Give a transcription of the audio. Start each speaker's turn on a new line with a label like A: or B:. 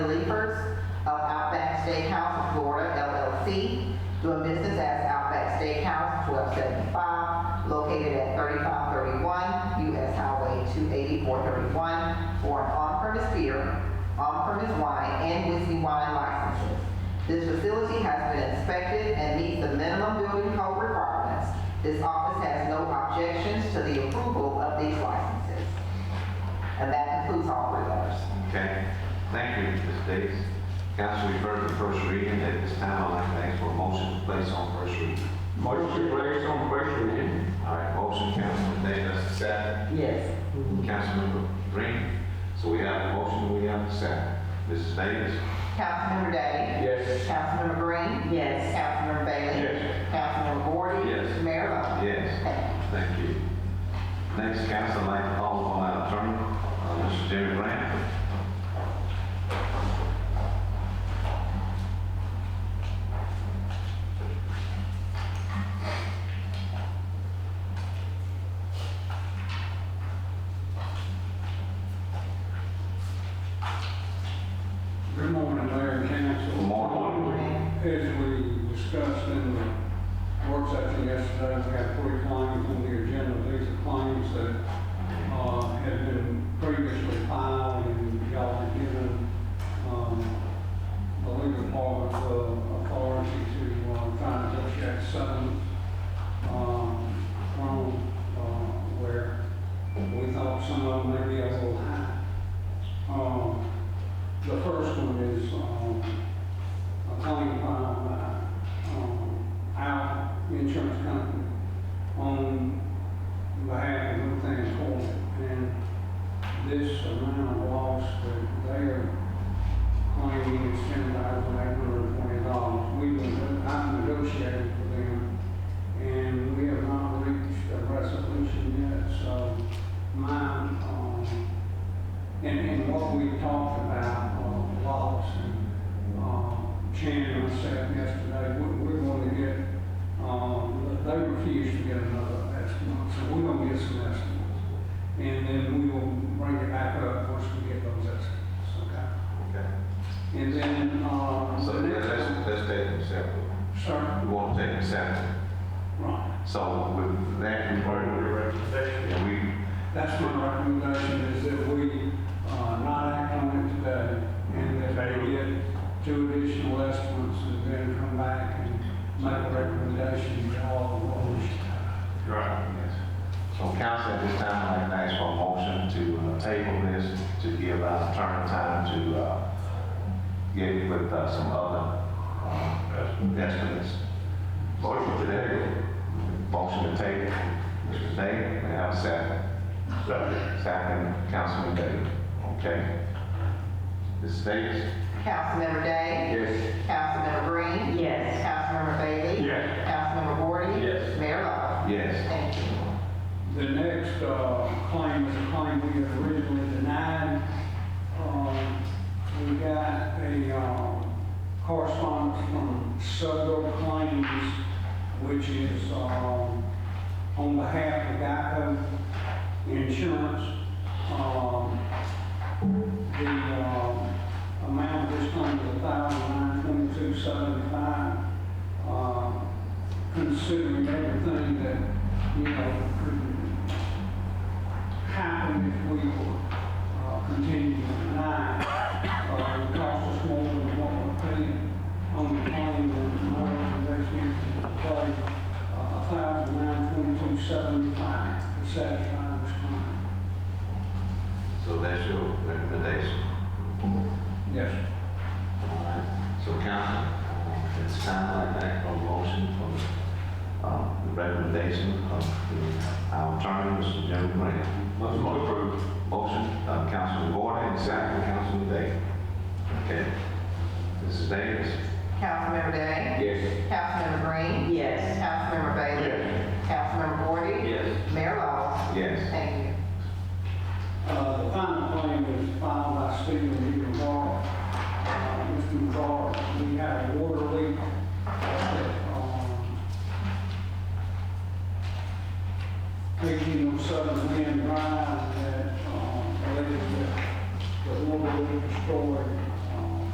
A: Steakhouse of Florida LLC, doing business as Outback Steakhouse, 1275, located at 3531 US Highway 28431, for an on-premise beer, on-premise wine, and whiskey wine licenses. This facility has been inspected and meets the minimum building code requirements. This office has no objections to the approval of these licenses. And that concludes all three letters.
B: Okay, thank you, Ms. Davis. Council, we've heard the first reading, at this time, I'd like to ask for a motion to place on first reading.
C: Motion placed on first reading.
B: All right, motion, Councilman Davis, second,
A: Yes.
B: Councilmember Green. So we have a motion, we have a second. Mrs. Davis?
A: Councilmember Day?
C: Yes.
A: Councilmember Green? Yes. Councilmember Bailey?
C: Yes.
A: Councilmember Gordon?
B: Yes.
A: Mayor Lo?
B: Yes, thank you. Next, council, I'd like to call upon our attorney, uh, Mr. Jerry Grant.
D: Good morning, Mayor and Council.
B: Good morning.
D: As we discussed in the work session yesterday, we have three claims on the agenda. These are claims that uh, had been previously filed and y'all were given um, the legal department uh, authority to uh, try and negotiate settlements um, from uh, where we thought some of them may be a little high. Um, the first one is, um, a claim filed by, uh, um, our insurance company on behalf of Luthans Court. And this amount of loss that they are claiming is ten thousand eight hundred and twenty dollars. We, will- I've negotiated for them, and we have not reached a resolution yet, so my, um, and, and what we talked about, uh, loss and, um, Shannon and myself yesterday, we, we're gonna get, um, they refuse to get another estimate, so we're gonna get some estimates. And then we will bring it back up once we get those estimates, okay?
B: Okay.
D: And then, um,
B: So
D: the
B: let's,
D: next.
B: let's- let's take them separately.
D: Sir,
B: We want to take them separately.
D: right,
B: So with that, we've heard, and we,
D: that's my recommendation, is that we, uh, not act on it today, and that we get two additional estimates, and then come back and make a recommendation to all the voters.
B: Yes. So council, at this time, I'd like to ask for a motion to uh, table this, to give us turn time to uh, get with uh, some other uh, estimates. Motion to table. Motion to table. Mr. Day, may I have a second? Second. Councilman Day. Okay. Ms. Davis?
A: Councilmember Day?
C: Yes.
A: Councilmember Green? Yes. Councilmember Bailey?
C: Yes.
A: Councilmember Gordon?
C: Yes.
A: Mayor Lo?
B: Yes.
A: Thank you.
D: The next uh, claim is a claim we had originally denied. Um, We got a um, correspondence from Suggo Claims, which is um, on behalf of Geico Insurance. Um, The um, amount of this claim is $1,922.75 uh, considering everything that, you know, could happen if we were uh, continuing to deny. Uh, It cost us more than what we're paying on the claim, and my recommendation is to pay Uh, a thousand nine twenty-two seventy-five to satisfy this claim.
B: So that's your recommendation.
D: Yes.
B: So council, it's time I make a motion for uh, the recommendation of the- our attorney, Mr. Jim Grant. Motion approved. Motion, uh, Councilman Gordon, and second, Councilman Day. Okay. Mrs. Davis?
A: Councilmember Day?
C: Yes.
A: Councilmember Green? Yes. Councilmember Bailey?
C: Yes.
A: Councilmember Gordon?
C: Yes.
A: Mayor Lo?
B: Yes.
A: Thank you.
D: Uh, The final claim was filed by Stephen D. McGraw. Uh, Mr. McGraw, we had a water Um, oh um, Um,